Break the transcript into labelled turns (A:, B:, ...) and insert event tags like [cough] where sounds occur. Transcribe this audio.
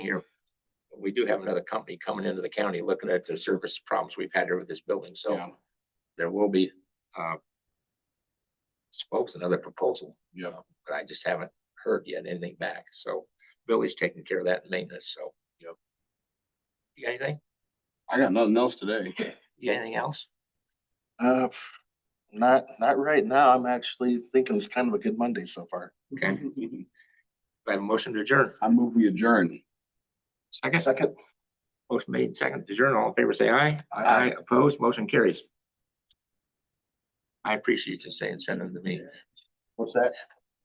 A: here. We do have another company coming into the county looking at the service problems we've had here with this building, so
B: Yeah,
A: there will be, uh, suppose another proposal, Uh,
B: yeah,
A: but I just haven't heard yet anything back, so Billy's taking care of that maintenance, so.
B: Yep.
A: You got anything?
B: I got nothing else today. [laughs]
A: You got anything else?
C: Uh, not, not right now. I'm actually thinking it's kind of a good Monday so far.
A: Okay. I have a motion to adjourn.
B: [laughs] I move we adjourn.
A: Second,
C: Second,
A: motion made, second to adjourn, all in favor, say aye.
C: Aye.
A: Opposed, motion carries. I appreciate you saying, sending to me.
C: what's that?